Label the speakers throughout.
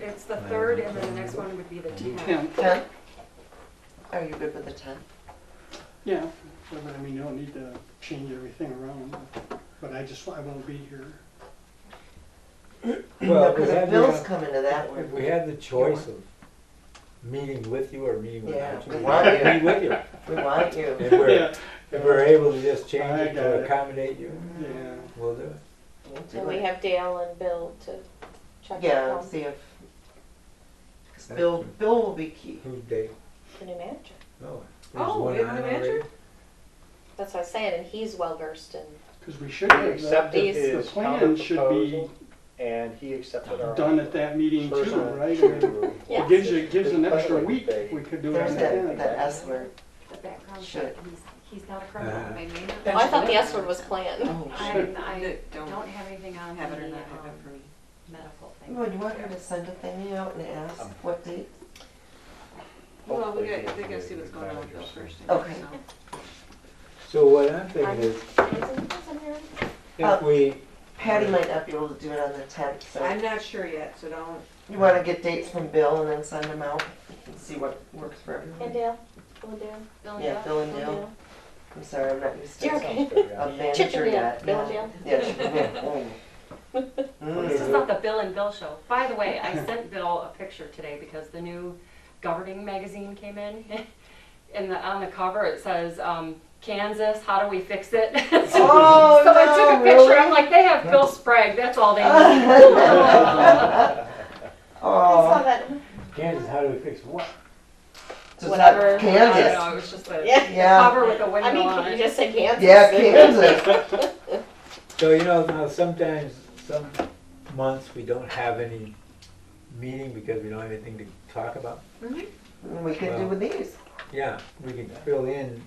Speaker 1: It's the third, and then the next one would be the tenth.
Speaker 2: Yeah,
Speaker 3: Ten? Are you good with the ten?
Speaker 2: yeah, but I mean, you don't need to change everything around, but I just, I won't be here.
Speaker 4: Well, if we
Speaker 3: Because the
Speaker 4: had
Speaker 3: bills
Speaker 4: the,
Speaker 3: come into that
Speaker 4: if
Speaker 3: one.
Speaker 4: we had the choice of meeting with you or meeting without you,
Speaker 3: Yeah,
Speaker 4: we'd
Speaker 3: we want you.
Speaker 4: meet with you.
Speaker 3: We want you.
Speaker 4: If we're,
Speaker 2: Yeah,
Speaker 4: if we're able to just change
Speaker 2: I
Speaker 4: it
Speaker 2: got it.
Speaker 4: to accommodate you,
Speaker 2: yeah,
Speaker 4: we'll do it.
Speaker 3: We'll do
Speaker 5: And we
Speaker 3: it.
Speaker 5: have Dale and Bill to check
Speaker 3: Yeah,
Speaker 5: out the
Speaker 3: see if, 'cause Bill, Bill will be key.
Speaker 4: Who's Dave?
Speaker 5: new manager.
Speaker 4: No. there's
Speaker 1: Oh,
Speaker 4: one
Speaker 1: we have
Speaker 4: on
Speaker 1: a new
Speaker 4: already.
Speaker 1: manager?
Speaker 5: That's what I'm saying, and he's well versed in,
Speaker 2: because we should have, that.
Speaker 6: accepted
Speaker 5: These-
Speaker 2: the
Speaker 6: his
Speaker 2: plan should be
Speaker 6: counterproposal, and he accepted our.
Speaker 2: done at that meeting too,
Speaker 6: personal
Speaker 2: right? It
Speaker 6: to-
Speaker 5: Yeah.
Speaker 2: gives you, gives an
Speaker 6: his
Speaker 2: extra
Speaker 6: planning
Speaker 2: week,
Speaker 6: phase.
Speaker 2: we could do it
Speaker 3: There's
Speaker 2: on the
Speaker 3: that,
Speaker 2: tenth.
Speaker 3: that S word.
Speaker 1: The background check,
Speaker 3: Should.
Speaker 1: he's, he's not a criminal,
Speaker 4: Uh,
Speaker 1: they may not.
Speaker 5: oh, I thought the S word was planned.
Speaker 3: Oh,
Speaker 1: I,
Speaker 3: shit.
Speaker 1: I
Speaker 7: That don't
Speaker 1: don't have anything on the,
Speaker 7: Have it or not have it
Speaker 1: um,
Speaker 7: for me.
Speaker 1: medical thing.
Speaker 3: Would you want her to send a thingy out and ask what date?
Speaker 7: Well, we
Speaker 6: Hopefully
Speaker 7: got,
Speaker 6: he'll
Speaker 7: they gotta
Speaker 6: be
Speaker 7: see what's going on with Bill
Speaker 6: managers.
Speaker 7: first. and
Speaker 3: Okay.
Speaker 7: so.
Speaker 4: So what I'm thinking is,
Speaker 3: Uh,
Speaker 4: if we,
Speaker 3: Patty might not be able to do it on the tenth, so
Speaker 7: I'm not sure yet, so don't,
Speaker 3: you wanna get dates from Bill and then send them out and see what works for
Speaker 5: And
Speaker 3: everyone.
Speaker 5: Dale, Bill and Dale,
Speaker 1: Bill and
Speaker 3: Yeah,
Speaker 1: Dale?
Speaker 3: Bill and
Speaker 5: Bill and
Speaker 3: Dale.
Speaker 5: Dale.
Speaker 3: I'm sorry, I'm not used to
Speaker 5: You're
Speaker 3: it.
Speaker 5: okay.
Speaker 3: a
Speaker 5: Chicken
Speaker 3: manager
Speaker 5: Bill,
Speaker 3: yet. Oh.
Speaker 5: Bill
Speaker 3: yeah.
Speaker 5: Dale.
Speaker 3: Yeah, chicken Bill. Mm.
Speaker 1: This is not the Bill and Bill show. By the way, I sent Bill a picture today because the new governing magazine came in. And the, on the cover, it says, um, Kansas, how do we fix it? So
Speaker 3: Oh,
Speaker 1: so I took a
Speaker 3: no,
Speaker 1: picture,
Speaker 3: really?
Speaker 1: I'm like, they have Bill Sprague, that's all they need.
Speaker 5: I saw
Speaker 3: Oh,
Speaker 5: that.
Speaker 4: Kansas, how do we fix what?
Speaker 3: just
Speaker 5: Whatever.
Speaker 1: I don't know,
Speaker 3: Kansas.
Speaker 1: it was just a
Speaker 5: Yeah.
Speaker 3: Yeah,
Speaker 1: cover with a window
Speaker 5: I mean,
Speaker 1: on
Speaker 5: can you
Speaker 1: it.
Speaker 5: just say Kansas?
Speaker 3: yeah, Kansas.
Speaker 4: So, you know, now sometimes, some months, we don't have any meeting because we don't have anything to talk about.
Speaker 3: We could do with these.
Speaker 4: Yeah, we can fill in,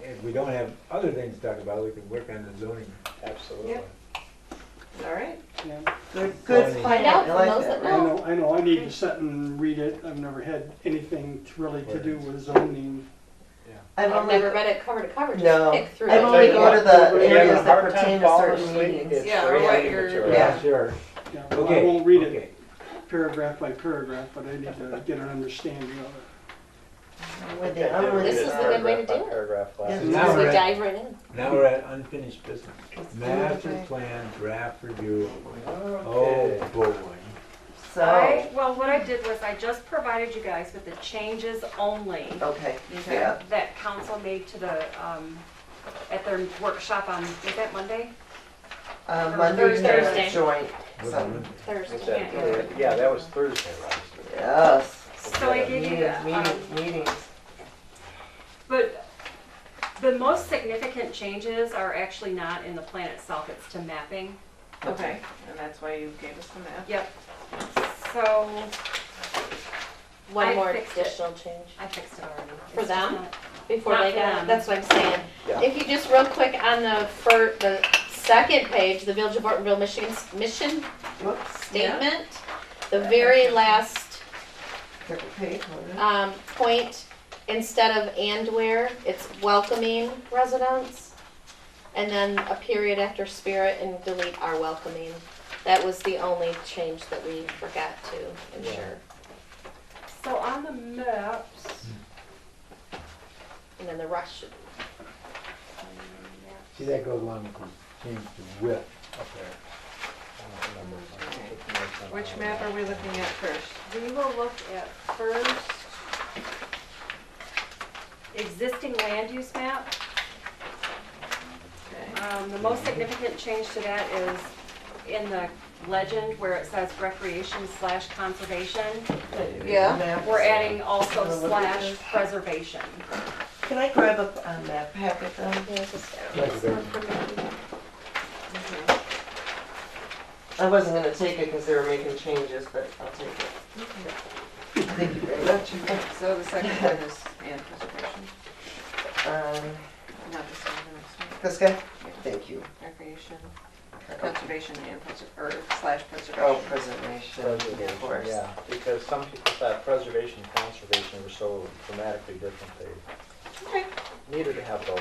Speaker 4: if we don't have other things to talk about, we can work on the zoning.
Speaker 6: Absolutely.
Speaker 7: Yep. all right.
Speaker 2: Yeah.
Speaker 3: Good, good
Speaker 4: Find
Speaker 3: plan.
Speaker 5: out
Speaker 3: I
Speaker 5: for
Speaker 3: like
Speaker 5: those
Speaker 3: that.
Speaker 5: that
Speaker 2: I
Speaker 5: know.
Speaker 2: know, I know, I need to sit and read it, I've never had anything to- really to do with zoning.
Speaker 3: I've
Speaker 5: I've
Speaker 3: only,
Speaker 5: never read it cover to cover, just
Speaker 3: no,
Speaker 5: pick
Speaker 3: I've
Speaker 5: through
Speaker 6: I'll
Speaker 3: only
Speaker 6: tell you
Speaker 3: go
Speaker 6: what,
Speaker 3: to the
Speaker 6: if you're having
Speaker 3: areas
Speaker 6: a
Speaker 3: that
Speaker 6: hard time
Speaker 3: pertain to
Speaker 6: falling
Speaker 3: certain
Speaker 6: asleep,
Speaker 3: meetings.
Speaker 6: it's
Speaker 7: Yeah,
Speaker 6: great
Speaker 7: or what
Speaker 6: reading
Speaker 7: you're-
Speaker 6: material.
Speaker 3: Yeah.
Speaker 4: Sure.
Speaker 2: Yeah, well, I
Speaker 4: Okay.
Speaker 2: won't read it
Speaker 4: okay.
Speaker 2: paragraph by paragraph, but I need to get an understanding of it.
Speaker 3: With
Speaker 6: Okay,
Speaker 3: the hourly
Speaker 5: This is the
Speaker 3: stuff.
Speaker 5: good way to
Speaker 6: paragraph by
Speaker 5: do it.
Speaker 6: Paragraph last.
Speaker 3: Yes.
Speaker 4: So
Speaker 5: Just
Speaker 4: now
Speaker 5: we
Speaker 4: we're at,
Speaker 5: dive right in.
Speaker 4: now we're at unfinished business.
Speaker 3: Let's do it
Speaker 4: Master
Speaker 3: right.
Speaker 4: plan draft review.
Speaker 6: Okay.
Speaker 4: Oh, boy.
Speaker 1: I,
Speaker 3: So,
Speaker 1: well, what I did was I just provided you guys with the changes only
Speaker 3: okay,
Speaker 7: Okay.
Speaker 3: yeah,
Speaker 1: that council made to the, um, at their workshop on, was that Monday?
Speaker 3: uh,
Speaker 1: Or
Speaker 3: Monday,
Speaker 5: Thursday.
Speaker 3: Thursday, joint, so,
Speaker 6: Is
Speaker 5: Thursday.
Speaker 6: that- Yeah, that was Thursday, right?
Speaker 3: yes.
Speaker 1: So I gave you,
Speaker 3: Meetings,
Speaker 1: the, um,
Speaker 3: meetings, meetings.
Speaker 1: But the most significant changes are actually not in the plan itself, it's to mapping.
Speaker 7: Okay, and that's why you gave us the map.
Speaker 1: Yep. So, I
Speaker 5: One more
Speaker 1: fixed it.
Speaker 5: additional change.
Speaker 1: I fixed it already.
Speaker 5: For
Speaker 1: It's just
Speaker 5: them?
Speaker 1: not-
Speaker 5: before
Speaker 1: Not
Speaker 5: they
Speaker 1: for
Speaker 5: got
Speaker 1: them.
Speaker 5: it. That's what I'm saying.
Speaker 6: Yeah.
Speaker 5: If you just real quick on the fir, the second page, the Village of Ortonville, Michigan's mission
Speaker 3: Whoops,
Speaker 5: statement, the very last
Speaker 3: took a page, wasn't it?
Speaker 5: um, point, instead of and where, it's welcoming residents. And then a period after spirit and delete our welcoming. That was the only change that we forgot to ensure.
Speaker 1: So on the maps,
Speaker 5: And then the rush,
Speaker 4: See, that goes along with the change to width up there.
Speaker 7: Which map are we looking at first?
Speaker 1: we will look at first existing land use map.
Speaker 7: Okay.
Speaker 1: Um, the most significant change to that is in the legend where it says recreation slash conservation.
Speaker 5: Yeah.
Speaker 3: Maps.
Speaker 1: We're adding also slash preservation.
Speaker 3: Can I grab a, a map packet then?
Speaker 5: you know, just-
Speaker 4: Thank you very much.
Speaker 3: I wasn't gonna take it because they were making changes, but I'll take it. Thank you very much.
Speaker 7: So the second one is and preservation,
Speaker 3: Um,
Speaker 7: not the same, the next one.
Speaker 3: this guy?
Speaker 7: Yeah.
Speaker 3: Thank you.
Speaker 7: Recreation, conservation and preser, or slash
Speaker 3: Oh,
Speaker 7: preservation.
Speaker 3: preservation, of
Speaker 6: Preservation,
Speaker 3: course.
Speaker 6: yeah, because some people thought preservation and conservation were so dramatically different,
Speaker 7: Okay.
Speaker 6: they needed to have both.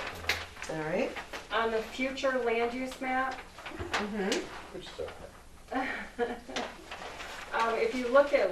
Speaker 3: All right.
Speaker 1: On the future land use map,
Speaker 7: Mm-hmm.
Speaker 6: Which is okay.
Speaker 1: um, if you look at